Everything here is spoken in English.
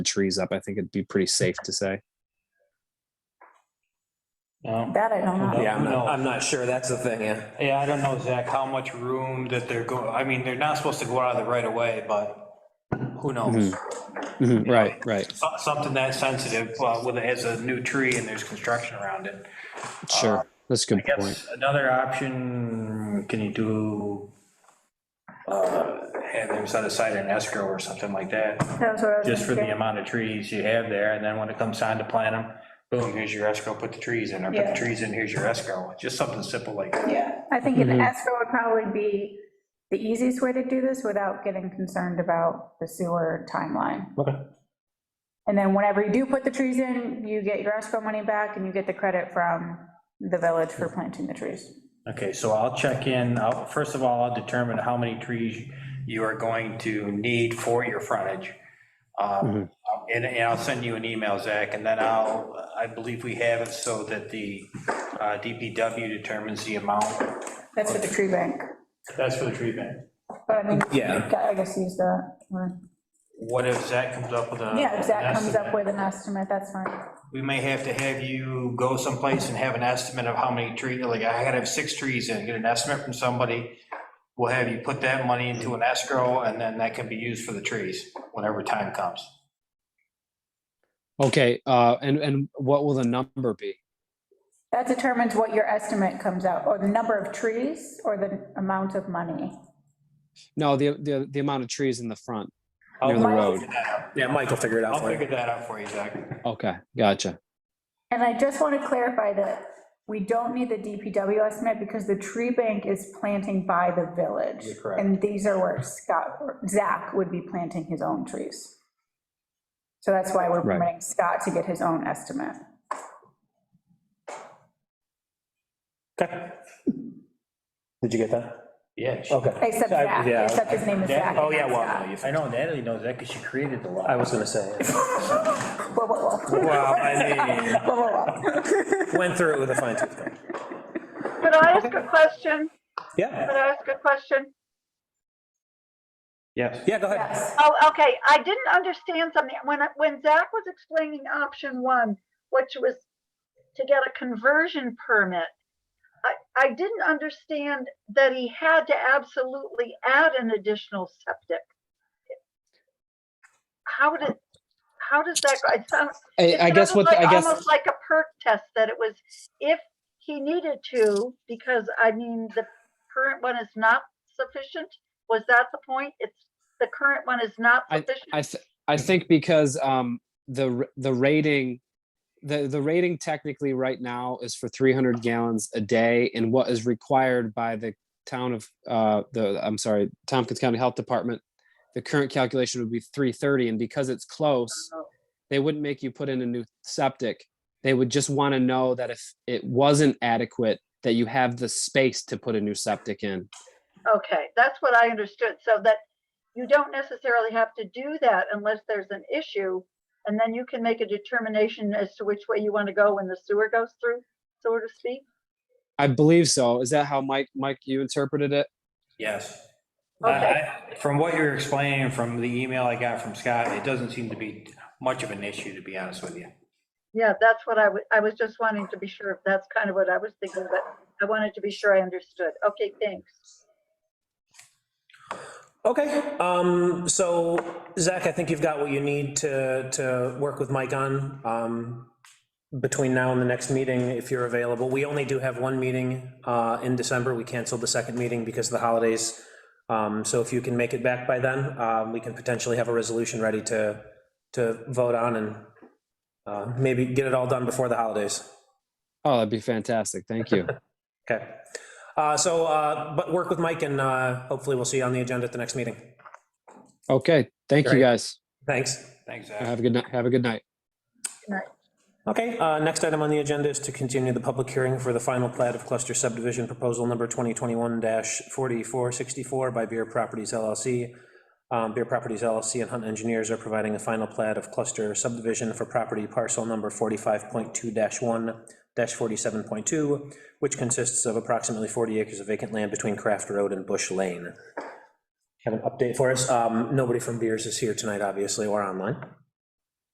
trees up, I think it'd be pretty safe to say. No. That I don't know. Yeah, I'm No. not, I'm not sure, that's the thing, yeah. Um, Yeah, I don't know, Zach, how much room that they're going, I mean, they're not supposed to go out of the right of way, but who knows? Mhm, Right, right, So- Something that sensitive, uh, with, as a new tree and there's construction around it. uh, sure. That's a good I point. guess another option, can you do, uh, have them set aside an escrow or something like that, That's what I was just for the thinking. amount of trees you have there, and then when it comes time to plant them, boom, here's your escrow, put the trees in, or put Yeah. the trees in, here's your escrow, just something simple like that. Yeah, I think an Mm-hmm. Mhm. escrow would probably be the easiest way to do this without getting concerned about the sewer timeline. Okay. And then whenever you do put the trees in, you get your escrow money back and you get the credit from the village for planting the trees. Okay, so I'll check in, I'll- first of all, I'll determine how many trees you are going to need for your frontage. Um, And and I'll send you an email, Zach, and then I'll, I believe we have it so that the uh, DPW determines the amount. That's for the tree bank. That's for the tree bank. But I mean, Yeah. I guess use the, What if Zach comes up with a? yeah, if Zach an comes estimate? up with an estimate, that's fine. We may have to have you go someplace and have an estimate of how many trees, like, I gotta have six trees in, get an estimate from somebody. We'll have you put that money into an escrow, and then that can be used for the trees whenever time comes. Okay, uh, and, and what will the number be? That determines what your estimate comes out, or the number of trees, or the amount of money. No, the, the, the amount of trees in the front Oh, near the Mine- road. Yeah, Mike will figure it out I'll for you. figure that out for you, Zach. Okay, gotcha. And I just want to clarify that we don't need the DPW estimate because the tree bank is planting by the village. You're correct. And these are where Scott, Zach would be planting his own trees. So that's why we're Right. permitting Scott to get his own estimate. Did you get that? Yeah. she- Okay. Except I- Zach, yeah. except his name is Zach. That- Oh, yeah, not Scott. well, no, you- I know Natalie knows that, because she created the law. I was gonna say, yeah. Whoa, whoa, whoa. well, I mean, Whoa, whoa, whoa. went through it with a fine tooth comb. Could I ask a question? Yeah, Could I ask a question? Yes. yeah, go ahead. Yes. Oh, okay, I didn't understand something. When, I- when Zach was explaining option one, which was to get a conversion permit, I, I didn't understand that he had to absolutely add an additional septic. How did, how does that, go? it sounds, I, It's I guess what, sort the- of I like- guess. Almost like a perk test, that it was if he needed to, because I mean, the current one is not sufficient. Was that the point? It's, the current one is not I sufficient? th- I think because um the r- the rating the the rating technically right now is for 300 gallons a day and what is required by the town of uh the I'm sorry Tompkins County Health Department the current calculation would be 330 and because it's close Oh. they wouldn't make you put in a new septic they would just want to know that if it wasn't adequate that you have the space to put a new septic in Okay, that's what I understood. So that you don't necessarily have to do that unless there's an issue. And then you can make a determination as to which way you want to go when the sewer goes through, so to speak. I believe so is that how Mike Mike you interpreted it Yes. I- Okay, I- From what you're explaining, from the email I got from Scott, it doesn't seem to be much of an issue, to be honest with you. yeah, that's what I was, I was just wanting to be sure. That's kind of what I was thinking, but I wanted to be sure I understood. Okay, thanks. Okay, um, so Zach, I think you've got what you need to, to work with Mike on, um, between now and the next meeting, if you're available. We only do have one meeting, uh, in December. We canceled the second meeting because of the holidays. Um, so if you can make it back by then, um, we can potentially have a resolution ready to, to vote on and, uh, maybe get it all done before the holidays. Oh, that'd be fantastic. Thank you. Okay. Uh, so, uh, but work with Mike and, uh, hopefully we'll see you on the agenda at the next meeting. Okay. Thank you Great. guys. Thanks. Thanks, Zach. Have a good night. Have a good night. Okay, uh, next item on the agenda is to continue the public hearing for the final plat of cluster subdivision proposal number 2021-4464 by Beer Properties LLC. Um, Beer Properties LLC and Hunt Engineers are providing a final plat of cluster subdivision for property parcel number 45.2-1-47.2, which consists of approximately 40 acres of vacant land between Craft Road and Bush Lane. Have an update for us. Um, Nobody from Beers is here tonight, obviously, or online.